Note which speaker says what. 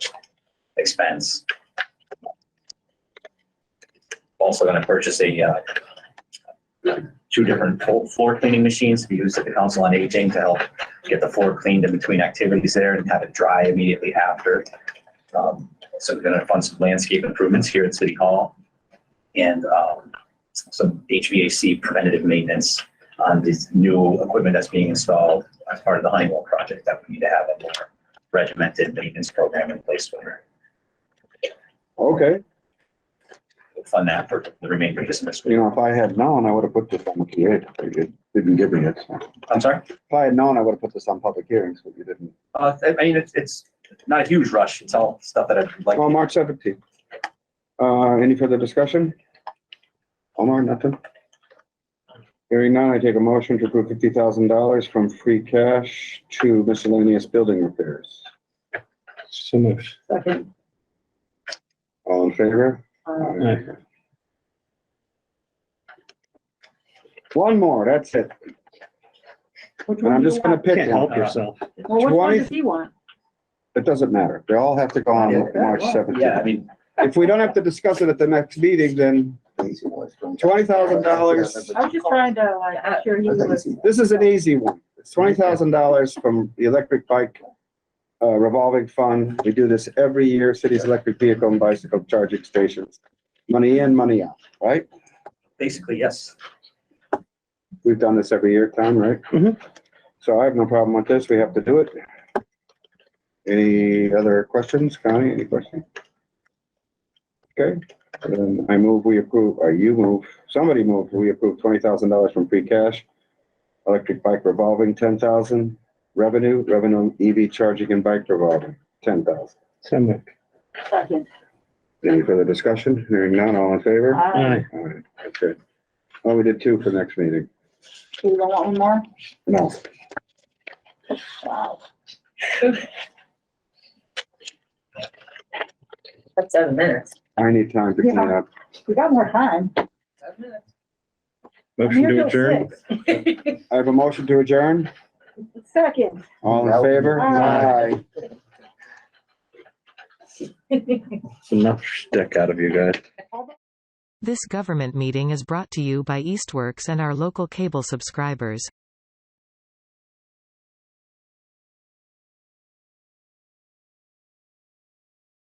Speaker 1: fence. Also gonna purchase a, uh, two different fo- floor cleaning machines to be used at the Council on Aging to help get the floor cleaned in between activities there and have it dry immediately after. Um, So we're gonna fund some landscape improvements here at City Hall and, um, some HVAC preventative maintenance on this new equipment that's being installed as part of the Honeywell project that we need to have a more regimented maintenance program in place for,
Speaker 2: Okay,
Speaker 1: we'll fund that for the remainder of this fiscal
Speaker 2: you
Speaker 1: year.
Speaker 2: know, if I had known, I would have put this on the PA, but you didn't give me it.
Speaker 1: I'm sorry?
Speaker 2: If I had known, I would have put this on public hearings, but you didn't.
Speaker 1: Uh, I I mean, it's, it's not a huge rush. It's all stuff that I'd like.
Speaker 2: Well, March seventeenth. Uh, any further discussion? Omar, nothing? Hearing none, I take a motion to approve fifty thousand dollars from free cash to miscellaneous building repairs.
Speaker 3: So moved.
Speaker 4: Second.
Speaker 2: All in favor?
Speaker 4: uh,
Speaker 2: One more, that's it.
Speaker 4: which
Speaker 2: And
Speaker 4: one
Speaker 2: I'm
Speaker 4: do you
Speaker 2: just gonna
Speaker 4: want?
Speaker 2: pick
Speaker 3: Can't
Speaker 2: one.
Speaker 3: help yourself.
Speaker 4: Well, which one
Speaker 2: 20.
Speaker 4: does he want?
Speaker 2: It doesn't matter. They all have to go on March
Speaker 1: Yeah, I
Speaker 2: seventeenth.
Speaker 1: mean,
Speaker 2: If we don't have to discuss it at the next meeting, then twenty thousand dollars.
Speaker 4: I was just trying to like, make sure he was,
Speaker 2: This is an easy one. It's twenty thousand dollars from the electric bike uh, revolving fund. We do this every year, city's electric vehicle and bicycle charging stations. Money in, money out, right?
Speaker 1: basically, yes.
Speaker 2: We've done this every year, Tom, right?
Speaker 3: Mhm.
Speaker 2: So I have no problem with this. We have to do it. Any other questions, Connie? Any questions? Okay, then I move, we approve, or you move, somebody move, we approve twenty thousand dollars from free cash. Electric bike revolving, ten thousand. Revenue, revenue EV charging and bike revolving, ten thousand.
Speaker 3: So moved.
Speaker 4: second.
Speaker 2: Any further discussion? Hearing none, all in favor?
Speaker 4: Uh,
Speaker 3: Aye.
Speaker 2: All right, that's good. Oh, we did two for next meeting.
Speaker 4: You don't want one more?
Speaker 2: No.
Speaker 4: Wow.
Speaker 5: That's seven minutes.
Speaker 2: I need time to clean
Speaker 4: Yeah.
Speaker 2: up.
Speaker 4: We got more time.
Speaker 5: Seven minutes.
Speaker 4: I'm
Speaker 3: Motion
Speaker 4: here
Speaker 3: to
Speaker 4: till
Speaker 3: adjourn.
Speaker 4: six.
Speaker 2: I have a motion to adjourn.
Speaker 4: Second.
Speaker 2: All in favor?
Speaker 4: Aye.
Speaker 3: It's enough shtick out of you guys.
Speaker 6: This government meeting is brought to you by Eastworks and our local cable subscribers.